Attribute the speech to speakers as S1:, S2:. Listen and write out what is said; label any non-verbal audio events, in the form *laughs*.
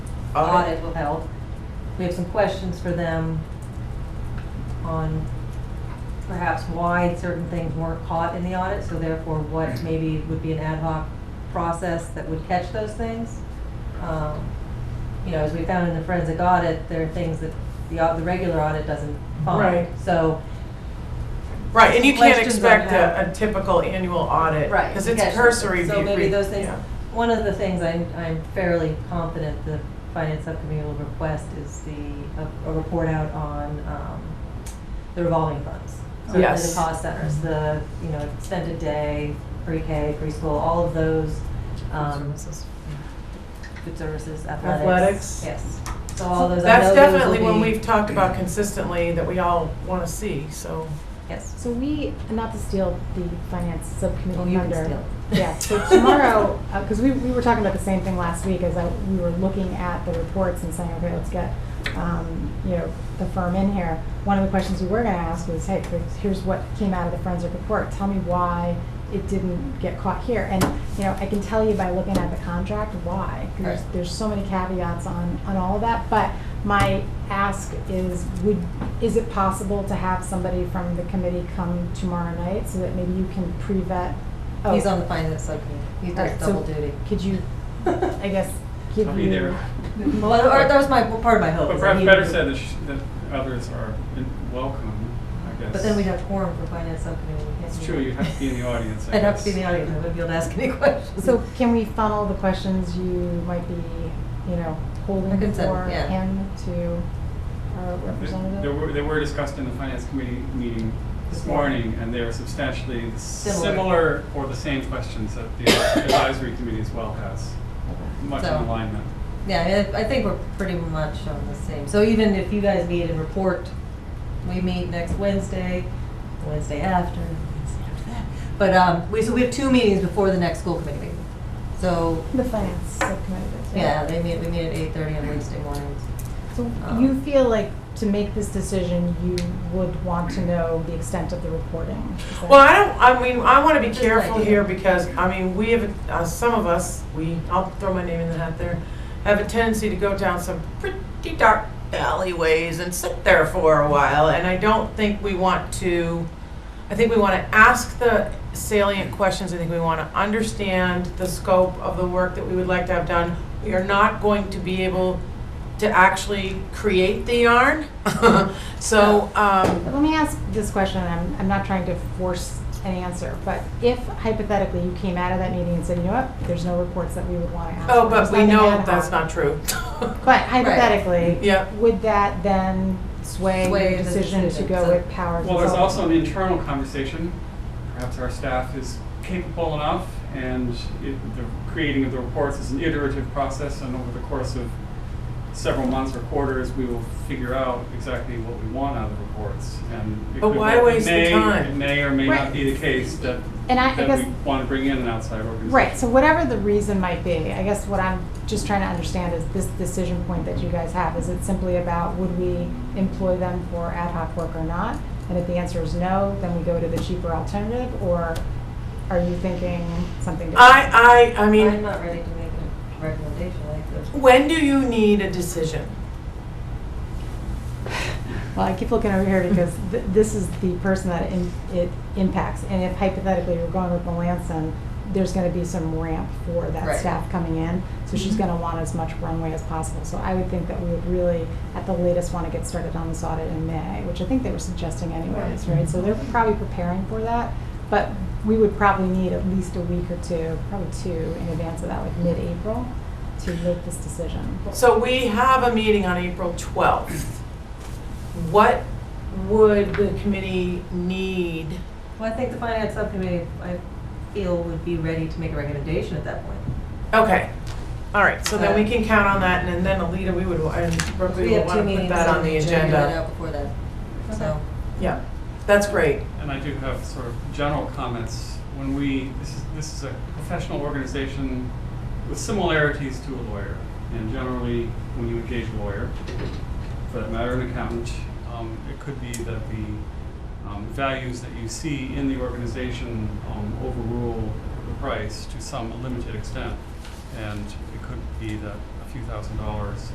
S1: Audit.
S2: audit will help. We have some questions for them on perhaps why certain things weren't caught in the audit, so therefore what maybe would be an ad hoc process that would catch those things. Um, You know, as we found in the forensic audit, there are things that the, au- the regular audit doesn't find.
S1: Right.
S2: So,
S1: Right, and you can't
S2: Questions
S1: expect
S2: on
S1: a, a typical annual audit.
S2: Right,
S1: Because it's
S2: catch those
S1: cursory.
S2: things. So
S1: view-
S2: maybe those things-
S1: yeah.
S2: one of the things I'm, I'm fairly confident the finance subcommittee will request is the, a, a report out on, um, the revolving funds. So
S1: Yes.
S2: The cost centers, the, you know, extended day, pre-K, preschool, all of those, um, food services, athletics.
S1: Athletics.
S2: Yes, so all those, I know those
S1: That's definitely
S2: will
S1: one
S2: be-
S1: we've talked about consistently that we all want to see, so.
S2: Yes,
S3: So we, not to steal the finance subcommittee
S2: Oh, you
S3: thunder.
S2: can steal it.
S3: *laughs* Yeah, so tomorrow, because we, we were talking about the same thing last week, as I, we were looking at the reports and saying, okay, let's get, um, you know, the firm in here. One of the questions we were gonna ask was, hey, here's what came out of the forensic report, tell me why it didn't get caught here. And, you know, I can tell you by looking at the contract why, 'cause there's,
S2: Right.
S3: there's so many caveats on, on all of that. But my ask is, would, is it possible to have somebody from the committee come tomorrow night so that maybe you can pre-vet? oh,
S2: he's on the finance subcommittee, he
S3: all
S2: does
S3: right, so
S2: double duty.
S3: Could
S2: *laughs*
S3: you, I guess, give you?
S4: I'll
S3: *laughs*
S4: be there.
S2: Well, or that was my, part of my hope.
S4: But
S2: is that
S4: perhaps
S2: Oh, he
S4: better
S2: would-
S4: said that sh- that others are in- welcome, I guess.
S2: But then we'd have quorum for finance subcommittee. we can't
S4: It's
S2: do
S4: true,
S2: that.
S4: you'd have to
S2: *laughs*
S4: be in the audience, I
S2: I'd have to be in
S4: guess.
S2: the audience, I wouldn't be able to ask any *laughs* questions.
S3: So can we funnel the questions you might be, you know,
S2: I
S3: holding
S2: can send-
S3: for
S2: yeah.
S3: him to our
S4: They- They
S3: representative?
S4: were, they were discussed in the finance committee meeting this
S2: Before.
S4: morning, and they're substantially the
S2: Similar.
S4: similar or the same questions that the advisory committee as well has, much in
S2: So-
S4: alignment.
S2: Yeah, I mean, I think we're pretty much on the same, so even if you guys meet and report, we meet next Wednesday, Wednesday after, Wednesday after that. But, um, we, so we have two meetings before the next school committee meeting. So,
S3: The finance subcommittee.
S2: yeah, they meet, we meet at eight thirty on Wednesday mornings.
S3: So
S2: Um,
S3: you feel like to make this decision, you would want to know the extent of the reporting? is that-
S1: Well, I don't, I mean, I want to be
S2: Just an
S1: careful
S2: idea.
S1: here because, I mean, we have, uh, some of us, we, I'll throw my name in the hat there, have a tendency to go down some pretty dark alleyways and sit there for a while, and I don't think we want to, I think we want to ask the salient questions, I think we want to understand the scope of the work that we would like to have done. We are not going to be able to actually create the yarn, *laughs* so, um,
S3: But Let me ask this question, and I'm, I'm not trying to force an answer, but if hypothetically you came out of that meeting and said, you know what, there's no reports that we would want to ask.
S1: oh,
S3: there's
S1: but we
S3: nothing ad
S1: know
S3: hoc."
S1: that's not true.
S3: But hypothetically,
S1: Yeah.
S3: would that then sway
S2: Sway
S3: your
S2: the
S3: decision to
S2: decision,
S3: go
S2: so-
S3: with power?
S4: Well, there's
S3: consulting?
S4: also an internal conversation. Perhaps our staff is capable enough, and it, the creating of the reports is an iterative process, and over the course of several months or quarters, we will figure out exactly what we want out of the reports. And it
S1: But
S4: could-
S1: why
S4: it
S1: waste the
S4: may-
S1: time?
S4: It may or may
S3: Right.
S4: not be the case that,
S3: And I- I
S4: that
S3: guess-
S4: we want to bring in an outside organization.
S3: Right, so whatever the reason might be, I guess what I'm just trying to understand is this decision point that you guys have, is it simply about would we employ them for ad hoc work or not? And if the answer is no, then we go to the cheaper alternative, or are you thinking something different?
S1: I, I, I
S2: I'm
S1: mean,
S2: not ready to make a recommendation like this.
S1: when do you need a decision?
S3: Well, I keep looking over here because th- this is the person that im- it impacts, and if hypothetically you're going with Melanson, there's gonna be some ramp for
S2: Right.
S3: that staff coming in, so she's gonna want as much runway as possible. So I would think that we would really, at the latest, wanna get started on this audit in May, which I think they were suggesting anyways, right? So they're probably preparing for that, but we would probably need at least a week or two, probably two, in advance of that, like mid-April, to make this decision.
S1: So we have a meeting on April 12th. What would the committee need?
S2: Well, I think the finance subcommittee, I feel, would be ready to make a recommendation at that point.
S1: Okay, all right, so then we can count on that, and then Alita, we would, and Brooke, we
S2: We
S1: would
S2: have two
S1: want to put
S2: meetings
S1: that on the
S2: Get it
S1: agenda.
S2: out before that, so.
S1: Yeah, that's great.
S4: And I do have sort of general comments. When we, this is, this is a professional organization with similarities to a lawyer. And generally, when you engage a lawyer, for that matter, an accountant, um, it could be that the um, values that you see in the organization um, overrule the price to some limited extent. And it could be that a few thousand dollars